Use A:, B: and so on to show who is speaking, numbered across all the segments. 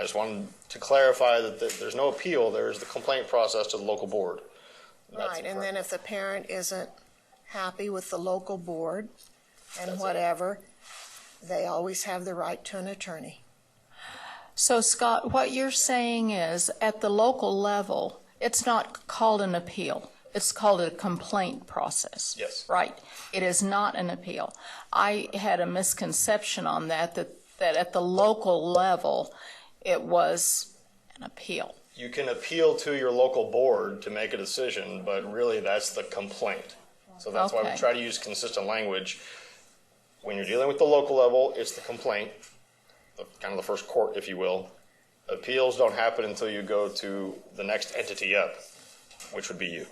A: just wanted to clarify that th- there's no appeal, there's the complaint process to the local board. That's
B: Right, and
A: correct.
B: then if the parent isn't happy with the local board and whatever, they always have the right to an attorney.
C: So Scott, what you're saying is, at the local level, it's not called an appeal. It's called a complaint process.
A: Yes.
C: Right? It is not an appeal. I had a misconception on that, that, that at the local level, it was an appeal.
A: You can appeal to your local board to make a decision, but really that's the complaint. So that's why we
C: Okay.
A: try to use consistent language. When you're dealing with the local level, it's the complaint, the, kind of the first court, if you will. Appeals don't happen until you go to the next entity up, which would be you.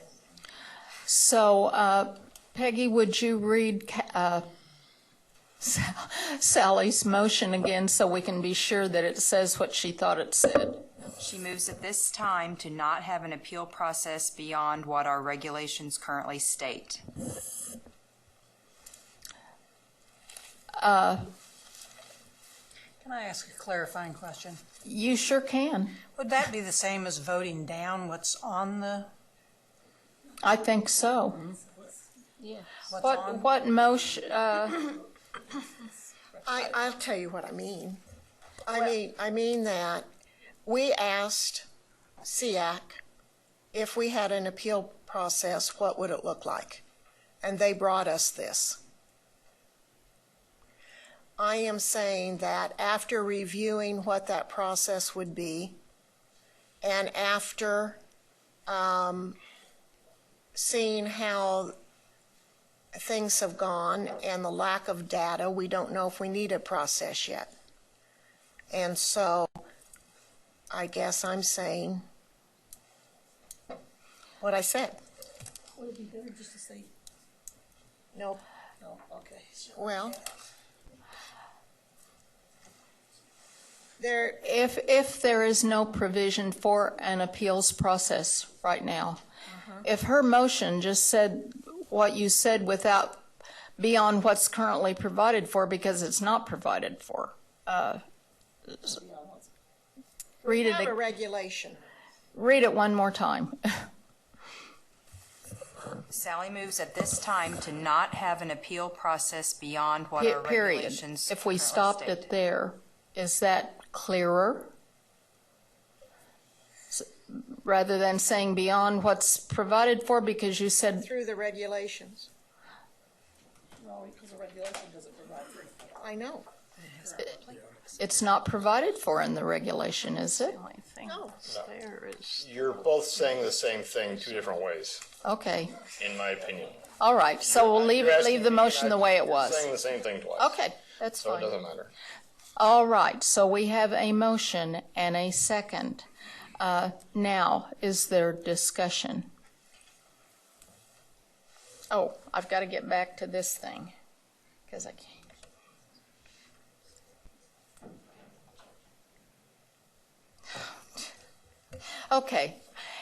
C: So, uh, Peggy, would you read Ca- uh, Sa- Sally's motion again so we can be sure that it says what she thought it said?
D: She moves at this time to not have an appeal process beyond what our regulations currently state.
E: Can I ask a clarifying question?
C: You sure can.
E: Would that be the same as voting down what's on the,
C: I think so.
E: what's
C: What,
E: on?
C: what motion, uh,
B: I, I'll tell you what I mean. I mean, I mean that we asked SEAC if we had an appeal process, what would it look like? And they brought us this. I am saying that after reviewing what that process would be, and after um, seeing how things have gone and the lack of data, we don't know if we need a process yet. And so I guess I'm saying what I said.
F: Would it be better just to say,
B: No.
F: no, okay. so-
B: Well, there,
C: if, if there is no provision for an appeals process right now, if her motion just said what you said without, beyond what's currently provided for, because it's not provided for, uh, s- read
B: we
C: it,
B: have a
C: ag-
B: regulation.
C: read it one more time.
D: Sally moves at this time to not have an appeal process beyond what our
C: Period.
D: regulations
C: If we
D: currently
C: stopped
D: state.
C: it there, is that clearer? S- Rather than saying beyond what's provided for, because you said,
B: Through the regulations.
F: No, because the regulation doesn't provide for it.
B: I know.
C: it's not provided for in the regulation, is it?
B: No.
A: You're both saying the same thing two different ways,
C: Okay,
A: in my opinion.
C: all right, so we'll leave,
A: You're
C: it.
A: asking
C: leave the
A: me, and
C: motion
A: I-
C: the way it
A: you're Saying
C: was.
A: the same thing twice.
C: Okay, that's
A: So it
C: fine.
A: doesn't matter.
C: All right, so we have a motion and a second. Uh, Now, is there discussion? Oh, I've got to get back to this thing, because I can't. Okay,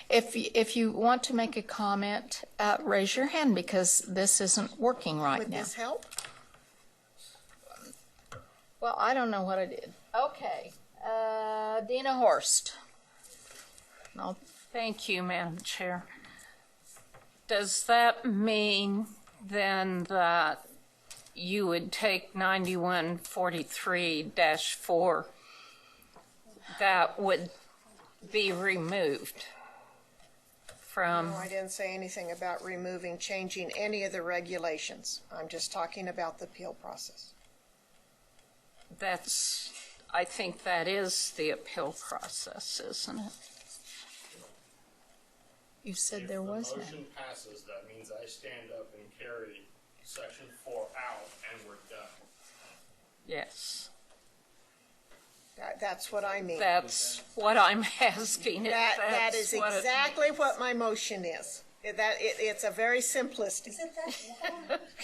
C: if, y- if you want to make a comment, uh, raise your hand, because this isn't working right
B: Would
C: now.
B: this help?
C: Well, I don't know what I did. Okay, uh, Dina Horst. No,
G: Thank you, Madam Chair. Does that mean then that you would take 9143-4? That would be removed from, Um,
B: No, I didn't say anything about removing, changing any of the regulations. I'm just talking about the appeal process.
G: that's, I think that is the appeal process, isn't it?
C: you said there was
H: If the
C: none.
H: motion passes, that means I stand up and carry section four out and we're done.
G: Yes.
B: That- That's what I mean.
G: That's what I'm asking. if
B: That, that
G: that's
B: is
G: what it-
B: exactly what my motion is. It- That, it, it's a very simplistic.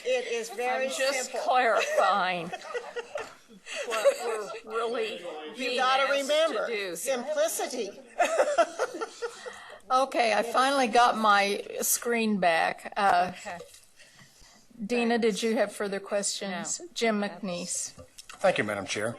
B: It is very
G: I'm just
B: simple.
G: clarifying what we're really
B: You
G: being
B: gotta
G: asked to
B: remember,
G: do.
B: simplicity.
C: Okay, I finally got my screen back. Uh,
G: Okay.
C: Dina, did you have further questions? Jim McNeese.
I: Thank you, Madam Chair.